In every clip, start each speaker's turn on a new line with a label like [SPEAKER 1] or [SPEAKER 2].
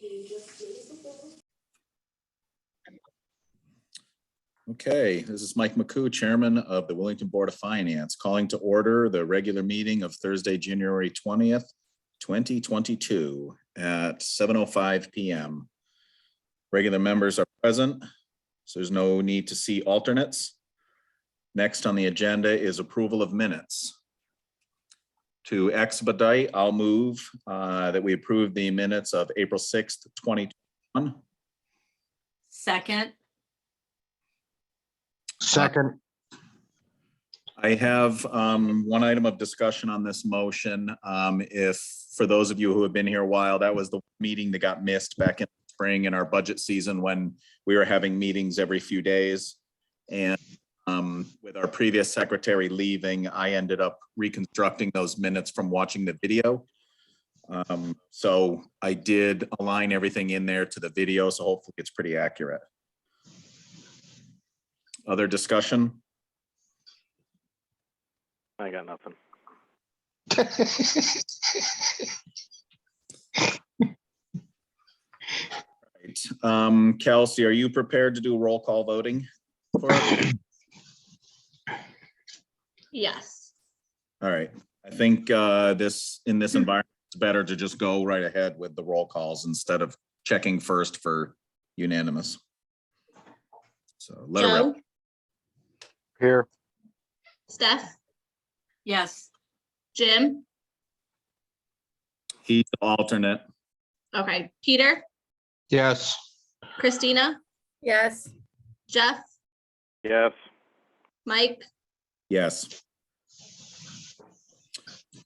[SPEAKER 1] you just days ago.
[SPEAKER 2] Okay, this is Mike McCoo, Chairman of the Wellington Board of Finance, calling to order the regular meeting of Thursday, January twentieth, twenty twenty-two at seven oh five PM. Regular members are present, so there's no need to see alternates. Next on the agenda is approval of minutes. To expedite, I'll move uh, that we approve the minutes of April sixth, twenty twenty-one.
[SPEAKER 3] Second,
[SPEAKER 4] Second,
[SPEAKER 2] I have um, one item of discussion on this motion. Um, If, for those of you who have been here a while, that was the meeting that got missed back in spring in our budget season when we were having meetings every few days. And um, with our previous secretary leaving, I ended up reconstructing those minutes from watching the video. Um, So I did align everything in there to the video, so hopefully it's pretty accurate. Other discussion?
[SPEAKER 5] I got nothing.
[SPEAKER 2] Right. Um, Kelsey, are you prepared to do roll call voting? for it?
[SPEAKER 1] Yes.
[SPEAKER 2] All right, I think uh, this, in this environment, it's better to just go right ahead with the roll calls instead of checking first for unanimous. So let her
[SPEAKER 1] Joe,
[SPEAKER 2] rip.
[SPEAKER 4] here,
[SPEAKER 1] Steph,
[SPEAKER 3] yes,
[SPEAKER 1] Jim,
[SPEAKER 2] He's the alternate.
[SPEAKER 1] okay, Peter,
[SPEAKER 4] yes,
[SPEAKER 1] Christina,
[SPEAKER 6] Yes,
[SPEAKER 1] Jeff,
[SPEAKER 5] Yes,
[SPEAKER 1] Mike,
[SPEAKER 2] Yes.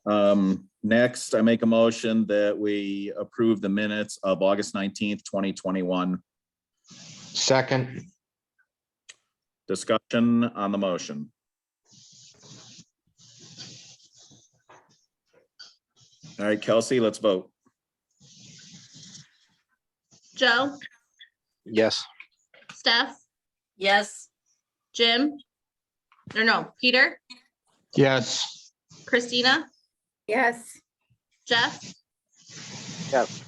[SPEAKER 2] Um, next, I make a motion that we approve the minutes of August nineteenth, twenty twenty-one.
[SPEAKER 4] second,
[SPEAKER 2] Discussion on the motion. All right, Kelsey, let's vote.
[SPEAKER 1] Joe,
[SPEAKER 4] yes,
[SPEAKER 1] Steph,
[SPEAKER 3] yes,
[SPEAKER 1] Jim. Or no, Peter,
[SPEAKER 4] yes,
[SPEAKER 1] Christina,
[SPEAKER 6] yes,
[SPEAKER 1] Jeff,
[SPEAKER 5] yes,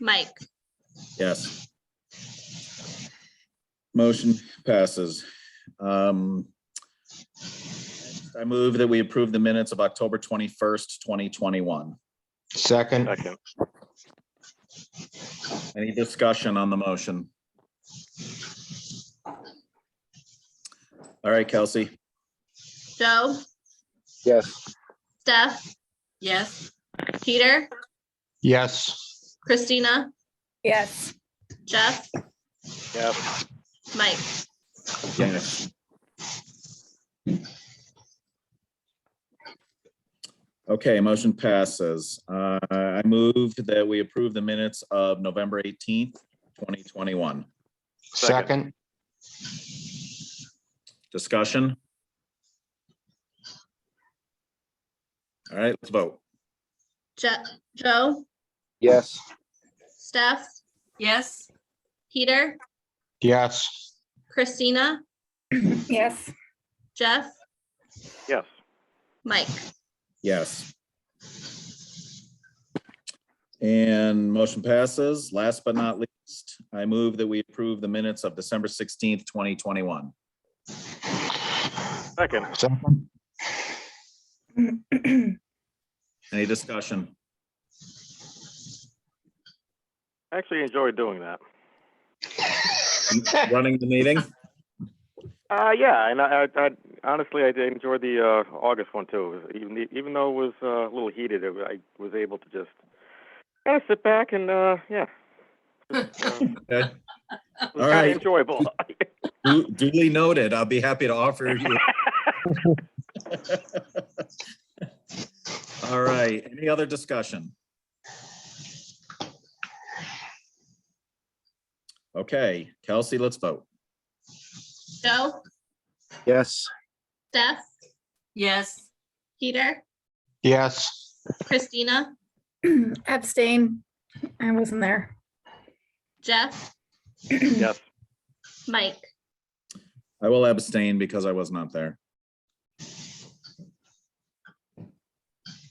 [SPEAKER 1] Mike.
[SPEAKER 2] Yes. Motion passes. Um, I move that we approve the minutes of October twenty-first, twenty twenty-one.
[SPEAKER 4] second,
[SPEAKER 5] second,
[SPEAKER 2] Any discussion on the motion? All right, Kelsey.
[SPEAKER 1] Joe,
[SPEAKER 4] yes,
[SPEAKER 1] Steph,
[SPEAKER 3] yes,
[SPEAKER 1] Peter,
[SPEAKER 4] yes,
[SPEAKER 1] Christina,
[SPEAKER 6] yes,
[SPEAKER 1] Jeff,
[SPEAKER 5] yes,
[SPEAKER 1] Mike.
[SPEAKER 2] Yes. Okay, motion passes. Uh, I moved that we approve the minutes of November eighteenth, twenty twenty-one.
[SPEAKER 4] second,
[SPEAKER 2] Discussion? All right, let's vote.
[SPEAKER 1] Je- Joe,
[SPEAKER 4] yes,
[SPEAKER 1] Steph,
[SPEAKER 3] yes,
[SPEAKER 1] Peter,
[SPEAKER 4] yes,
[SPEAKER 1] Christina,
[SPEAKER 6] yes,
[SPEAKER 1] Jeff,
[SPEAKER 5] yes,
[SPEAKER 1] Mike.
[SPEAKER 2] Yes. And motion passes. Last but not least, I move that we approve the minutes of December sixteenth, twenty twenty-one.
[SPEAKER 5] second,
[SPEAKER 4] second,
[SPEAKER 2] Any discussion?
[SPEAKER 5] actually enjoyed doing that.
[SPEAKER 2] Running the meeting?
[SPEAKER 5] Uh, yeah, and I, I, I honestly, I did enjoy the, uh, August one too. Even, even though it was, uh, a little heated, it- I was able to just kind of sit back and, uh, yeah. Just, uh,
[SPEAKER 2] Okay.
[SPEAKER 5] It
[SPEAKER 2] All
[SPEAKER 5] was kind
[SPEAKER 2] right.
[SPEAKER 5] of enjoyable.
[SPEAKER 2] Du- Duly noted. I'll be happy to offer you. All right, any other discussion? Okay, Kelsey, let's vote.
[SPEAKER 1] Joe,
[SPEAKER 4] yes,
[SPEAKER 1] Steph,
[SPEAKER 3] yes,
[SPEAKER 1] Peter,
[SPEAKER 4] yes,
[SPEAKER 1] Christina,
[SPEAKER 6] abstain. I wasn't there.
[SPEAKER 1] Jeff,
[SPEAKER 5] Yes,
[SPEAKER 1] Mike.
[SPEAKER 2] I will abstain because I was not there.